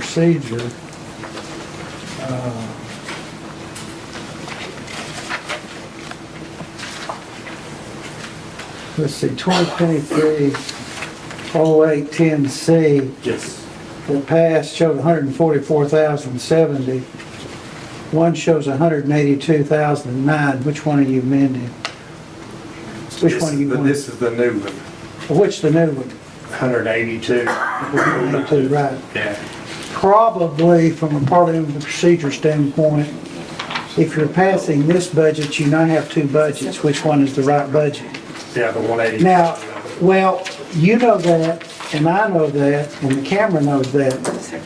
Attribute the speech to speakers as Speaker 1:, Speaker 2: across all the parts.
Speaker 1: Procedure. uh, Let's see, twenty twenty-three, oh eight ten C
Speaker 2: Yes.
Speaker 1: that passed showed hundred and forty-four thousand seventy. One shows hundred and eighty-two thousand nine. Which one are you amending? Which one are you
Speaker 2: This-
Speaker 1: going?
Speaker 2: This is the new one,
Speaker 1: Which the new one?
Speaker 2: 182.
Speaker 1: Eighty-two, right.
Speaker 2: Yeah.
Speaker 1: probably from a parliamentary procedure standpoint, if you're passing this budget, you now have two budgets, which one is the right budget?
Speaker 2: Yeah, the 182.
Speaker 1: Now, well, you know that, and I know that, and the camera knows that,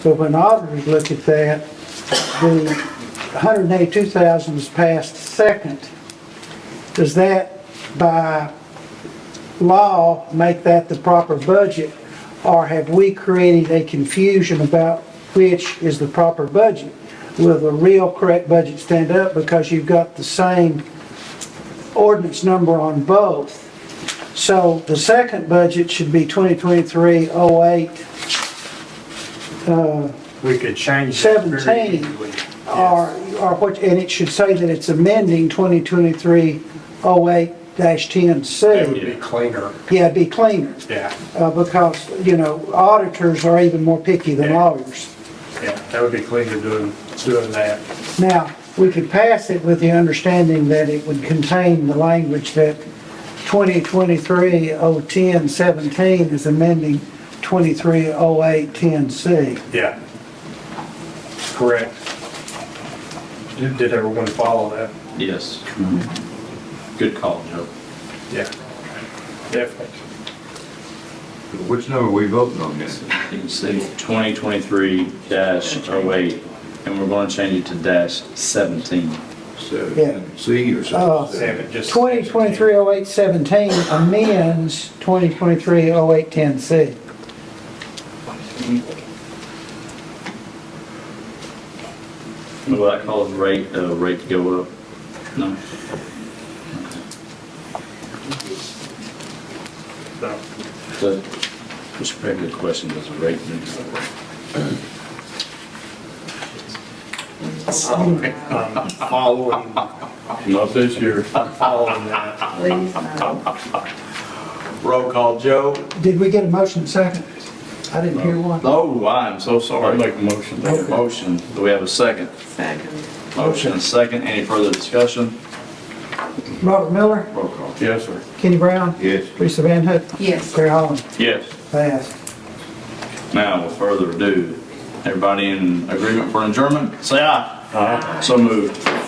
Speaker 1: but when auditors look at that, the 182,000 was passed second. Does that, by law, make that the proper budget? Or have we created a confusion about which is the proper budget? Will the real correct budget stand up because you've got the same ordinance number on both? So the second budget should be 2023-08,
Speaker 2: We could change that very
Speaker 1: 17.
Speaker 2: easily.
Speaker 1: or, or what, and it should say that it's amending 2023-08-10C.
Speaker 2: It would be cleaner,
Speaker 1: Yeah, it'd be cleaner,
Speaker 2: yeah,
Speaker 1: uh, because, you know, auditors are even more picky than
Speaker 2: Yeah.
Speaker 1: lawyers.
Speaker 2: yeah, that would be cleaner doing, doing that.
Speaker 1: Now, we could pass it with the understanding that it would contain the language that 2023-010-17 is amending 23-08-10C.
Speaker 2: Yeah. Correct. Did did everyone follow that?
Speaker 3: Yes. Good call, Joe.
Speaker 2: Yeah. Definitely.
Speaker 4: Which number we voting on this?
Speaker 3: You can see 2023 dash 08, and we're going to change it to dash 17.
Speaker 1: Yeah.
Speaker 4: Seven, C or
Speaker 1: Uh,
Speaker 4: something?
Speaker 2: Seven, just.
Speaker 1: 2023-08-17 amends 2023-08-10C.
Speaker 3: Will that cause rate, uh, rate to go up? No.
Speaker 2: No.
Speaker 3: So, it's a pretty good question, does the rate need to go up?
Speaker 2: I'm um, Following,
Speaker 3: Not this year.
Speaker 2: following that.
Speaker 5: Please, no.
Speaker 6: Roll call, Joe?
Speaker 1: Did we get a motion second? I didn't hear one.
Speaker 3: Oh, I am so sorry.
Speaker 6: Make a motion.
Speaker 3: Make a motion. Do we have a second?
Speaker 5: Second.
Speaker 3: Motion and second. Any further discussion?
Speaker 1: Robert Miller,
Speaker 3: Roll call.
Speaker 6: Yes, sir.
Speaker 1: Kenny Brown,
Speaker 4: Yes.
Speaker 1: Teresa Van Hook,
Speaker 5: Yes.
Speaker 1: Terry Holland.
Speaker 3: Yes.
Speaker 1: Passed.
Speaker 3: Now, with further ado, everybody in agreement for adjournment, say aye. Aye. So moved.